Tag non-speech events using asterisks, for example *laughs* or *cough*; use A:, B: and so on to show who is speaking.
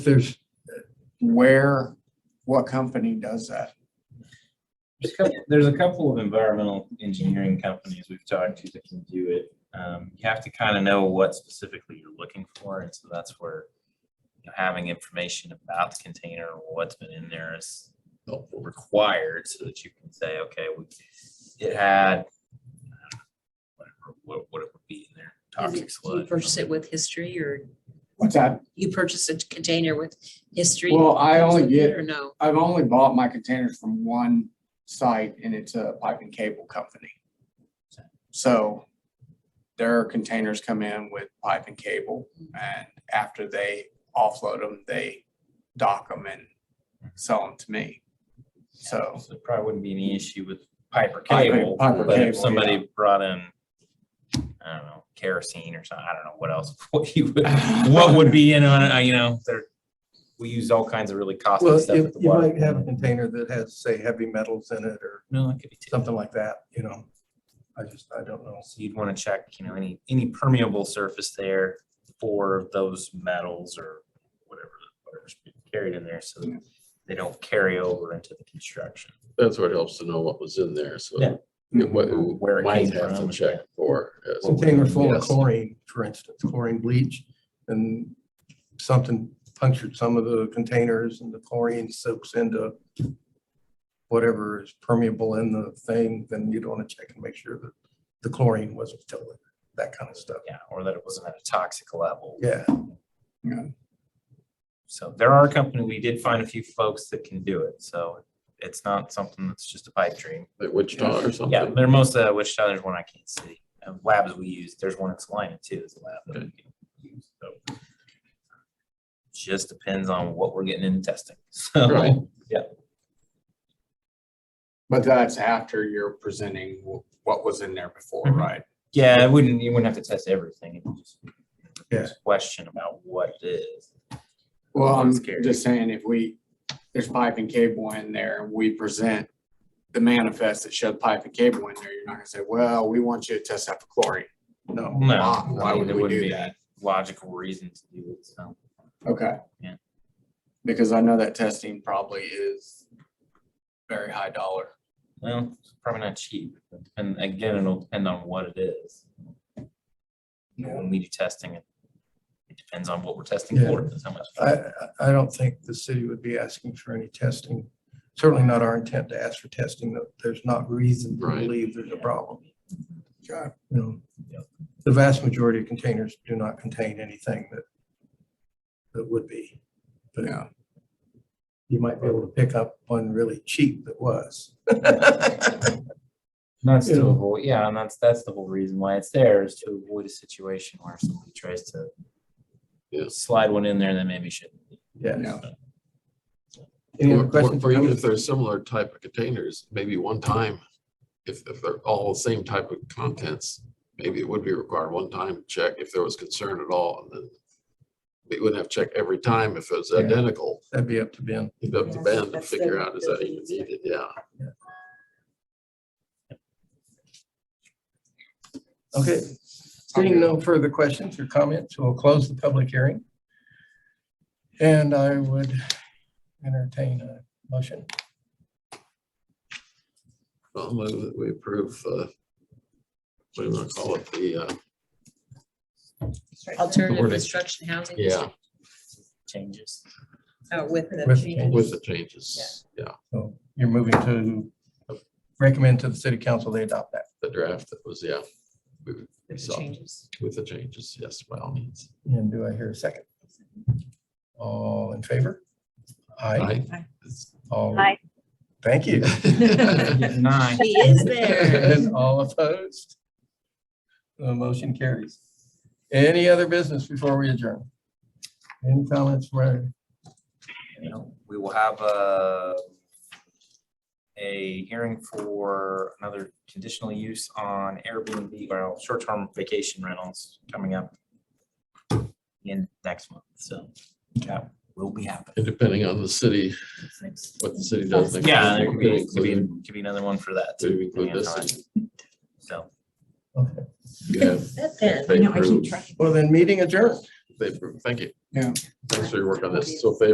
A: there's,
B: where, what company does that?
C: There's a couple, there's a couple of environmental engineering companies we've talked to that can do it. Um, you have to kind of know what specifically you're looking for, and so that's where you know, having information about the container, what's been in there is required so that you can say, okay, we, it had uh, whatever, what, what it would be in there,
D: Is
C: toxic
D: it- do You
C: sludge.
D: purchase it with history or
B: What's that?
D: you purchase a container with history?
B: Well, I only
D: included
B: get-
D: Or no?
B: I've only bought my containers from one site and it's a pipe and cable company. So their containers come in with pipe and cable and after they offload them, they dock them and sell them to me. So
C: So it probably wouldn't be any issue with pipe or
B: Pipe or-
C: cable,
B: pipe or
C: but if
B: cable, yeah.
C: somebody brought in, I don't know, kerosene or something, I don't know what else, *laughs* what you,
B: *laughs*
C: would- what would be in on it, uh, you know, there, we use all kinds of really costly
E: Well,
C: stuff
E: you
C: at the
E: you
C: water.
E: might have a container that has, say, heavy metals in it or
C: No, it could be, too.
E: something like that, you know? I just, I don't know.
C: so you'd wanna check, you know, any, any permeable surface there for those metals or whatever, whatever's being carried in there, so that they don't carry over into the construction.
F: That's where it helps to know what was in there, so.
C: Yeah.
F: you know, What,
C: Where it
F: might
C: came
F: have to
C: from,
F: check
C: yeah.
F: for. yes.
E: Container full of
F: Yes.
E: chlorine, for instance, chlorine bleach, and something punctured some of the containers and the chlorine soaks into whatever is permeable in the thing, then you'd want to check and make sure that the chlorine wasn't still in, that kind of stuff.
C: Yeah, or that it wasn't at a toxic level.
E: Yeah,
C: So there are a company, we did find a few folks that can do it, so it's not something that's just a pipe dream.
F: Like Wichita or
C: Yeah,
F: something.
C: there are most, uh, Wichita, there's one I can't see. Um, Labs we use, there's one that's Salina too, is a lab that we can use, so. Just depends on what we're getting in testing, *laughs*
E: uh,
F: Right.
C: so.
B: But that's after you're presenting wh- what was in there before,
C: Mhm.
B: right?
C: Yeah, it wouldn't, you wouldn't have to test everything. it would just-
E: Yeah.
C: just Question about what it is.
B: Well, I'm
C: That's scary.
B: just saying if we, there's pipe and cable in there and we present the manifest that showed pipe and cable in there, you're not gonna say, well, we want you to test out for chlorine.
E: no.
C: No,
B: Ah, why
C: I mean,
B: would
C: there
B: we
C: wouldn't
B: do
C: be
B: that?
C: logical reason to do it, so.
B: Okay.
C: Yeah.
B: Because I know that testing probably is very high dollar.
C: Well, it's probably not cheap, and again, it'll depend on what it is. You know, When we do testing, it it depends on what we're testing
E: Yeah.
C: for, that's how much.
E: I, I- I don't think the city would be asking for any testing. Certainly not our intent to ask for testing. that There's not reason to
F: Right.
E: believe there's a problem.
B: Okay.
E: You know,
C: Yeah.
E: The vast majority of containers do not contain anything that, that would be. But
B: Yeah.
E: you might be able to pick up one really cheap that was.
C: That's
E: you
C: to
E: know.
C: avoid, yeah, and that's, that's the whole reason why it's there, is to avoid a situation where somebody tries to
F: Yeah.
C: slide one in there that maybe shouldn't. be.
E: Yeah.
B: Yeah.
E: Any other
F: Or- Or
E: questions?
F: or even if they're similar type of containers, maybe one time, if, if they're all the same type of contents, maybe it would be required one time to check if there was concern at all, and then we wouldn't have to check every time if it was
E: Yeah.
F: identical,
E: That'd be up to Ben.
F: you'd have to
G: Yeah,
F: bend and
G: that's
F: figure
G: the-
F: out, is that
G: the
F: even
G: easier.
F: needed, yeah.
E: Okay, seeing no further questions or comments, we'll close the public hearing. And I would entertain a motion.
F: I'll move that we approve, uh, what do you want to call it, the, uh,
D: Alternative
F: Wording.
D: construction housing.
F: yeah,
C: Changes.
D: Oh, with the.
E: With-
D: change.
F: with the changes, yeah,
E: So you're moving to recommend to the city council they adopt that.
F: the draft that was, yeah,
D: with the
F: so-
D: changes.
F: with the changes, yes, by all means.
E: And do I hear a second? All in favor? Aye.
F: Aye.
E: All. Thank you.
C: Nine.
D: He
E: *laughs*
D: is there.
E: And all opposed? The motion carries. Any other business before we adjourn? Any comments, Ray?
C: you know, we will have a a hearing for another conditional use on Airbnb, well, short-term vacation rentals coming up in next month, so that will be happening.
F: And depending on the city, what the city does. next
C: Yeah, there
F: year,
C: could
F: we
C: be,
F: could
C: could be,
F: include-
C: could be another one for that.
F: could
C: too,
F: include
C: depending on
F: this.
C: time. So.
E: Okay.
F: you have-
D: That then.
F: they
G: No, I keep
F: approve.
G: track.
E: Well, then meeting adjourned.
F: They approve. Thank you.
B: Yeah.
F: Thanks for your work on this. So if they